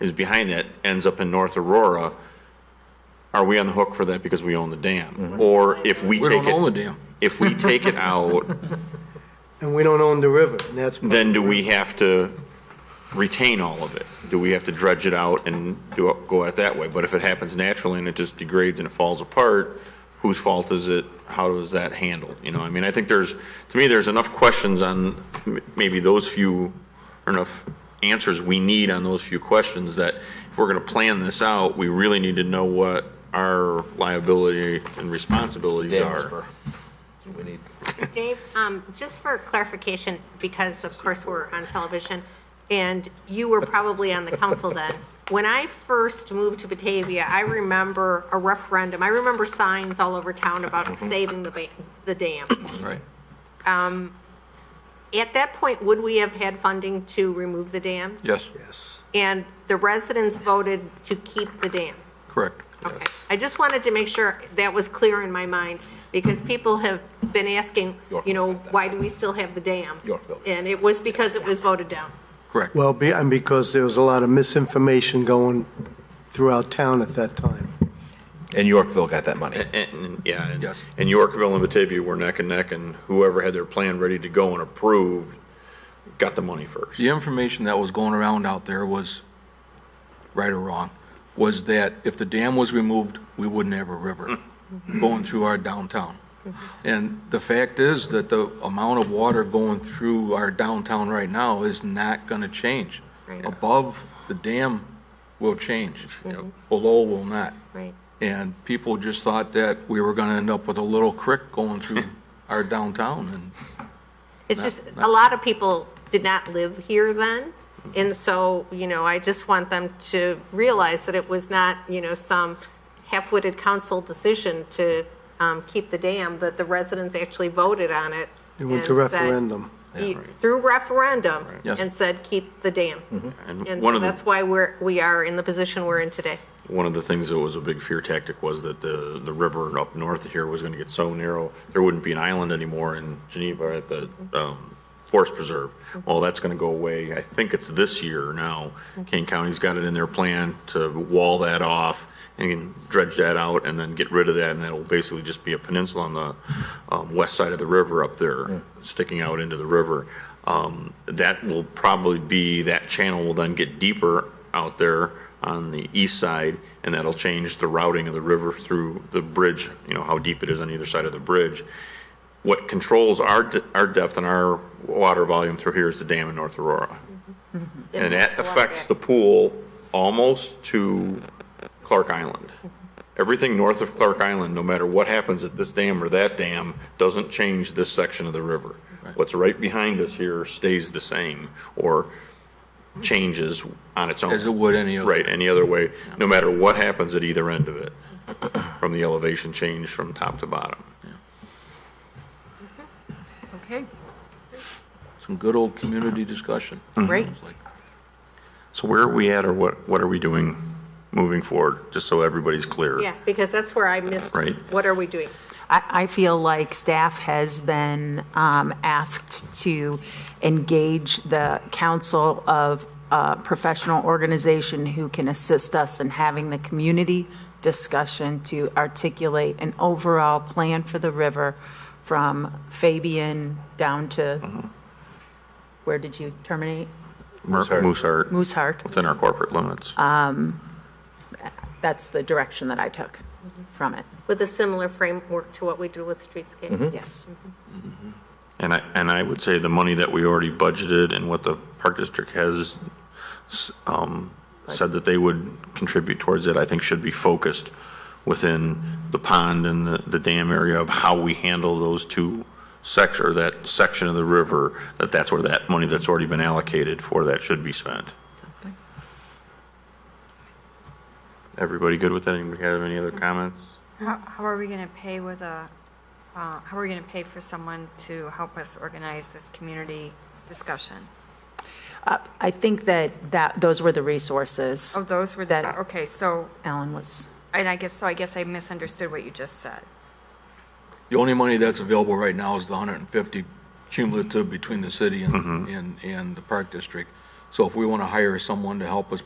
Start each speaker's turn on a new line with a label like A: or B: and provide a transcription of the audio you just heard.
A: is behind that ends up in North Aurora, are we on the hook for that because we own the dam? Or if we
B: We
A: take
B: don't own the
A: it,
B: dam.
A: if we take it out,
C: And we don't own the river, and that's.
A: then do we have to retain all of it? Do we have to dredge it out and do, it- go at that way? But if it happens naturally and it just degrades and it falls apart, whose fault is it? How does that handle? You know, I mean, I think there's, to me, there's enough questions on m- maybe those few, or enough answers we need on those few questions that if we're gonna plan this out, we really need to know what our liability and responsibilities
D: Dam
A: are.
D: whisperer. That's what we need.
E: Dave, um, just for clarification, because of course we're on television, and you were probably on the council then. When I first moved to Batavia, I remember a referendum, I remember signs all over town about saving the, ba- the dam. Um,
B: Right.
E: At that point, would we have had funding to remove the dam?
B: Yes,
C: Yes.
E: And the residents voted to keep the dam.
B: correct.
E: Okay, I just wanted to make sure that was clear in my mind, because people have been asking, you know, why do we still have the dam?
D: Yorkville.
E: And it was because it was voted down.
B: Correct.
C: Well, be- and because there was a lot of misinformation going throughout town at that time.
D: And Yorkville got that money.
A: And- And, yeah, and,
B: Yes.
A: and Yorkville and Batavia were neck and neck, and whoever had their plan ready to go and approved got the money first.
B: The information that was going around out there was, right or wrong, was that if the dam was removed, we wouldn't have a river
E: Mm-hmm.
B: going through our downtown. And the fact is that the amount of water going through our downtown right now is not going to change.
E: Right.
B: Above the dam will change.
E: Mhm.
B: Below will not.
E: Right.
B: And people just thought that we were going to end up with a little creek going through our downtown, and
E: It's
B: Not-
E: just,
B: not-
E: a lot of people did not live here then,
C: Mm-hmm.
E: and so, you know, I just want them to realize that it was not, you know, some half-witted council decision to um, keep the dam, that the residents actually voted on it.
C: They went to
E: and said-
C: referendum.
E: E- Through referendum,
B: Yes.
E: and said, keep the dam.
A: Mm-hmm. And
E: And
A: one
E: so
A: of the,
E: that's why we're, we are in the position we're in today.
A: one of the things that was a big fear tactic was that the, the river up north here was gonna get so narrow, there wouldn't be an island anymore in Geneva at the, um, Forest Preserve. Well, that's gonna go away, I think it's this year now. Kane County's got it in their plan to wall that off and dredge that out and then get rid of that, and that'll basically just be a peninsula on the, um, west side of the river up there, sticking out into the river. Um, that will probably be, that channel will then get deeper out there on the east side, and that'll change the routing of the river through the bridge, you know, how deep it is on either side of the bridge. What controls our, de- our depth and our water volume through here is the dam in North Aurora. And that affects the pool almost to Clark Island. Everything north of Clark Island, no matter what happens at this dam or that dam, doesn't change this section of the river. What's right behind us here stays the same or changes on its own.
B: as it would any other.
A: Right, any other way, no matter what happens at either end of it, from the elevation change from top to bottom.
F: Okay,
B: Some good old community discussion.
F: great.
B: It's like,
A: So where are we at, or what, what are we doing moving forward, just so everybody's clear?
E: Yeah, because that's where I missed,
A: Right.
E: what are we doing?
G: I, I feel like staff has been um, asked to engage the council of a professional organization who can assist us in having the community discussion to articulate an overall plan for the river from Fabian down to, where did you terminate?
A: Mooseheart,
G: Mooseheart.
A: within our corporate limits.
G: That's the direction that I took from it.
E: With a similar framework to what we do with
A: Mm-hmm.
E: streetscape?
G: Yes.
A: And I, and I would say the money that we already budgeted and what the Park District has s- um, said that they would contribute towards it, I think should be focused within the pond and the, the dam area of how we handle those two sector, that section of the river, that that's where that money that's already been allocated for that should be spent. Everybody good with that? Anybody have any other comments?
H: How, how are we going to pay with a, uh, how are we going to pay for someone to help us organize this community discussion?
G: Uh, I think that, that, those were the resources
H: Oh, those were,
G: That-
H: the okay, so,
G: Alan was
H: and I guess, so I guess I misunderstood what you just said.
B: The only money that's available right now is the 150 cumulative between the city and, and, and the park district. So if we want to hire someone to help us